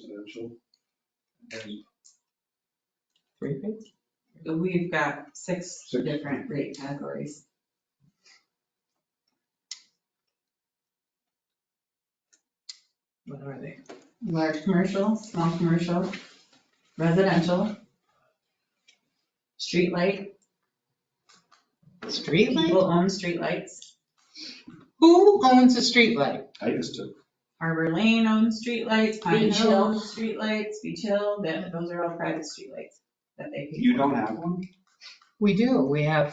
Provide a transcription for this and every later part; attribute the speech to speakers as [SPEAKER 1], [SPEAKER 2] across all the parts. [SPEAKER 1] residential. And
[SPEAKER 2] Three things?
[SPEAKER 3] We've got six
[SPEAKER 1] Six.
[SPEAKER 3] different rate categories.
[SPEAKER 2] What are they?
[SPEAKER 3] Large commercial, small commercial, residential, streetlight,
[SPEAKER 2] Streetlight?
[SPEAKER 3] people own streetlights,
[SPEAKER 2] Who owns a streetlight?
[SPEAKER 1] I used to,
[SPEAKER 3] Harbor Lane owns streetlights, Pine
[SPEAKER 2] Beach
[SPEAKER 3] Hill
[SPEAKER 2] Hill.
[SPEAKER 3] owns streetlights, Beach Hill, that, those are all private streetlights that they pay for.
[SPEAKER 1] you don't have one?
[SPEAKER 2] We do, we have,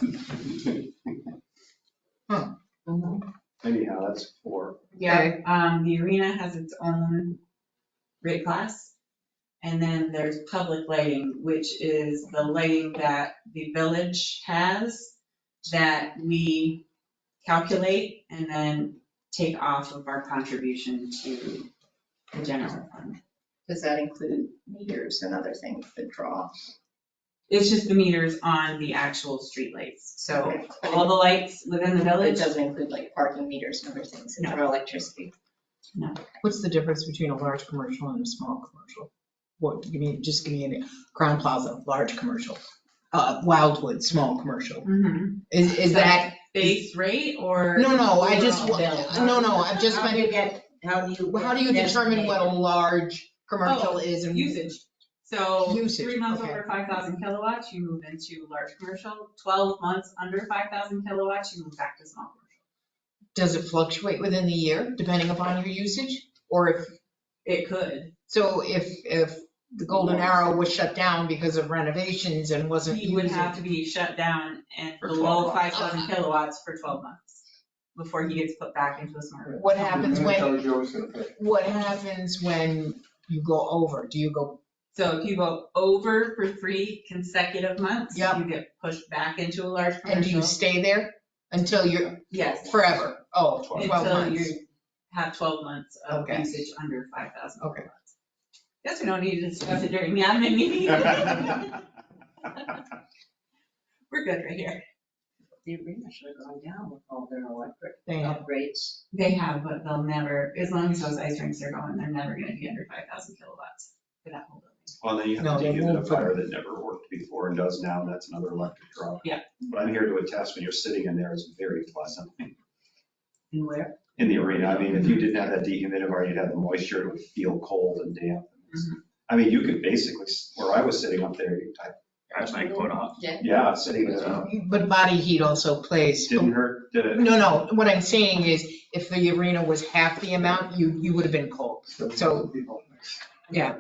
[SPEAKER 4] Mm-hmm.
[SPEAKER 1] Anyhow, that's four.
[SPEAKER 3] Yeah,
[SPEAKER 2] Okay.
[SPEAKER 3] um, the arena has its own rate class. And then there's public lighting, which is the lighting that the village has that we calculate and then take off of our contribution to the general fund.
[SPEAKER 5] Does that include meters and other things that draw?
[SPEAKER 3] It's just the meters on the actual streetlights. So all the lights within the
[SPEAKER 5] It
[SPEAKER 3] village,
[SPEAKER 5] doesn't include like parking meters and other things that
[SPEAKER 3] No.
[SPEAKER 5] draw electricity?
[SPEAKER 2] what's the difference between a large commercial and a small commercial? What, give me, just give me a, Crown Plaza, large commercial, uh, Wildwood, small commercial.
[SPEAKER 3] Mhm.
[SPEAKER 2] Is, is that,
[SPEAKER 3] base rate or?
[SPEAKER 2] no, no, I just,
[SPEAKER 3] overall?
[SPEAKER 5] bill.
[SPEAKER 2] no, no, I've just,
[SPEAKER 5] How do you
[SPEAKER 2] been-
[SPEAKER 5] get, how do you?
[SPEAKER 2] how do you determine what a large commercial is and?
[SPEAKER 3] Usage. So
[SPEAKER 2] Usage,
[SPEAKER 3] three months
[SPEAKER 2] okay.
[SPEAKER 3] over five thousand kilowatts, you move into large commercial. Twelve months under five thousand kilowatts, you move back to small commercial.
[SPEAKER 2] Does it fluctuate within the year depending upon your usage? Or if,
[SPEAKER 3] It could.
[SPEAKER 2] so if, if the Golden Arrow was shut down because of renovations and wasn't
[SPEAKER 3] You would
[SPEAKER 2] using.
[SPEAKER 3] have to be shut down and
[SPEAKER 1] For
[SPEAKER 3] below
[SPEAKER 1] 12
[SPEAKER 3] five thousand kilowatts for twelve months before he gets put back into a smart grid.
[SPEAKER 2] What happens
[SPEAKER 1] That
[SPEAKER 2] when,
[SPEAKER 1] tells you what's in it.
[SPEAKER 2] what happens when you go over? Do you go,
[SPEAKER 3] So if you go over for three consecutive months,
[SPEAKER 2] Yep.
[SPEAKER 3] you get pushed back into a large
[SPEAKER 2] and do you
[SPEAKER 3] commercial.
[SPEAKER 2] stay there until you're,
[SPEAKER 3] Yes,
[SPEAKER 2] forever? Oh, 12
[SPEAKER 3] until
[SPEAKER 2] months.
[SPEAKER 3] you have twelve months of
[SPEAKER 2] Okay.
[SPEAKER 3] usage under five thousand
[SPEAKER 2] Okay.
[SPEAKER 3] kilowatts. Guess we don't need to discuss it during the admin meeting. We're good right here.
[SPEAKER 5] The arena should have gone down with all their electric
[SPEAKER 2] They have-
[SPEAKER 5] upgrades.
[SPEAKER 3] They have, but they'll never, as long as those ice rinks are going, they're never gonna be under five thousand kilowatts for that whole building.
[SPEAKER 1] Well, then you
[SPEAKER 2] No,
[SPEAKER 1] have to
[SPEAKER 2] they
[SPEAKER 1] deal with
[SPEAKER 2] won't put-
[SPEAKER 1] a fire that never worked before and does now, and that's another electric draw.
[SPEAKER 3] Yeah.
[SPEAKER 1] But I'm here to attest, when you're sitting in there, it's very pleasant
[SPEAKER 3] And where?
[SPEAKER 1] in the arena. I mean, if you didn't have that dehumidifier, you'd have the moisture, it would feel cold and damp.
[SPEAKER 3] Mm-hmm.
[SPEAKER 1] I mean, you could basically, s- where I was sitting up there, you type,
[SPEAKER 6] That's my quote off.
[SPEAKER 5] Yeah.
[SPEAKER 1] yeah, sitting there,
[SPEAKER 2] But body heat also plays.
[SPEAKER 1] didn't hurt, did it?
[SPEAKER 2] Oh. No, no, what I'm saying is if the arena was half the amount, you, you would have been cold. So- Yeah.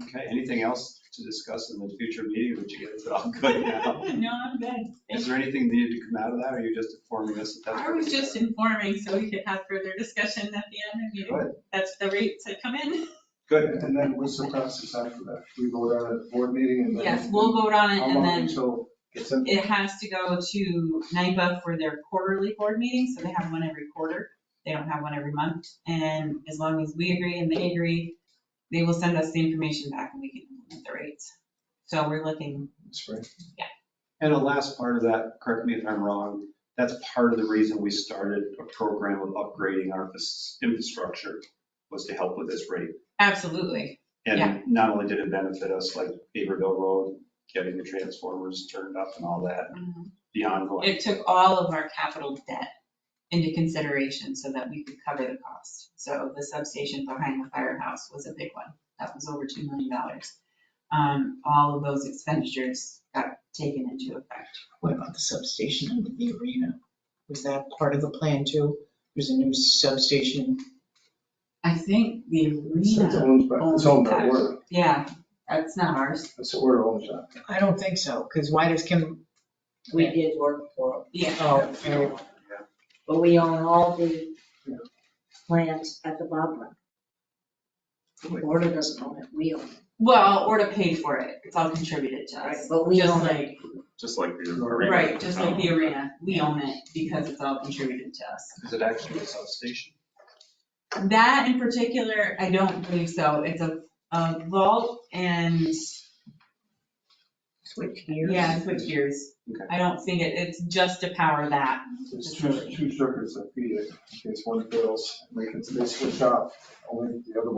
[SPEAKER 1] Okay, anything else to discuss in the future meeting, which you guys are all good now?
[SPEAKER 3] Oh, No, I'm good.
[SPEAKER 1] Is there anything needed to come out of that, or are you just informing us that that's?
[SPEAKER 3] I
[SPEAKER 1] what
[SPEAKER 3] was
[SPEAKER 1] we-
[SPEAKER 3] just informing so we could have further discussion at the admin meeting.
[SPEAKER 1] Good.
[SPEAKER 3] That's the rates that come in.
[SPEAKER 1] Good,
[SPEAKER 4] And then what's the process after that? We go down at the board meeting and then.
[SPEAKER 3] Yes, we'll vote on it
[SPEAKER 4] How
[SPEAKER 3] and
[SPEAKER 4] long
[SPEAKER 3] then
[SPEAKER 4] until it's in?
[SPEAKER 3] It has to go to NIPA for their quarterly board meeting, so they have one every quarter. They don't have one every month. And as long as we agree and they agree, they will send us the information back and we can implement the rates. So we're looking,
[SPEAKER 4] Spring.
[SPEAKER 1] and the last part of that, correct me if I'm wrong, that's part of the reason we started a program of upgrading our fas- infrastructure, was to help with this rate.
[SPEAKER 3] absolutely. Yeah.
[SPEAKER 1] And not only did it benefit us, like Beaverville Road, getting the transformers turned up and all that, the ongoing.
[SPEAKER 3] It took all of our capital debt into consideration so that we could cover the cost. So the substation behind the firehouse was a big one. That was over $2 million. Um, All of those expenditures got taken into effect.
[SPEAKER 2] What about the substation under the arena? Was that part of the plan too? There's a new substation.
[SPEAKER 3] I think the
[SPEAKER 4] It's
[SPEAKER 3] arena,
[SPEAKER 4] owned by, it's owned by
[SPEAKER 3] Owned by-
[SPEAKER 4] Werner.
[SPEAKER 3] yeah, that's not ours.
[SPEAKER 4] It's the Werner owns that.
[SPEAKER 2] I don't think so, because why does Kim,
[SPEAKER 7] We did work for
[SPEAKER 3] Yeah,
[SPEAKER 2] oh, oh,
[SPEAKER 7] it, but we own all the plants at the Bob Run. The Order doesn't own it, we own it,
[SPEAKER 3] well, or to pay for it, it's all contributed to
[SPEAKER 7] right?
[SPEAKER 3] us.
[SPEAKER 7] But we
[SPEAKER 3] Just
[SPEAKER 7] own it.
[SPEAKER 3] like,
[SPEAKER 6] Just like the arena.
[SPEAKER 3] right, just like the arena, we own it because it's all contributed to us.
[SPEAKER 1] Is it actually a substation?
[SPEAKER 3] That in particular, I don't believe so, it's a, a vault and,
[SPEAKER 7] Switch gears.
[SPEAKER 3] yeah, switch gears.
[SPEAKER 1] Okay.
[SPEAKER 3] I don't think it, it's just to power that.
[SPEAKER 4] There's two, two circuits that feed it. In case one fails, they can, they switch off, only the other one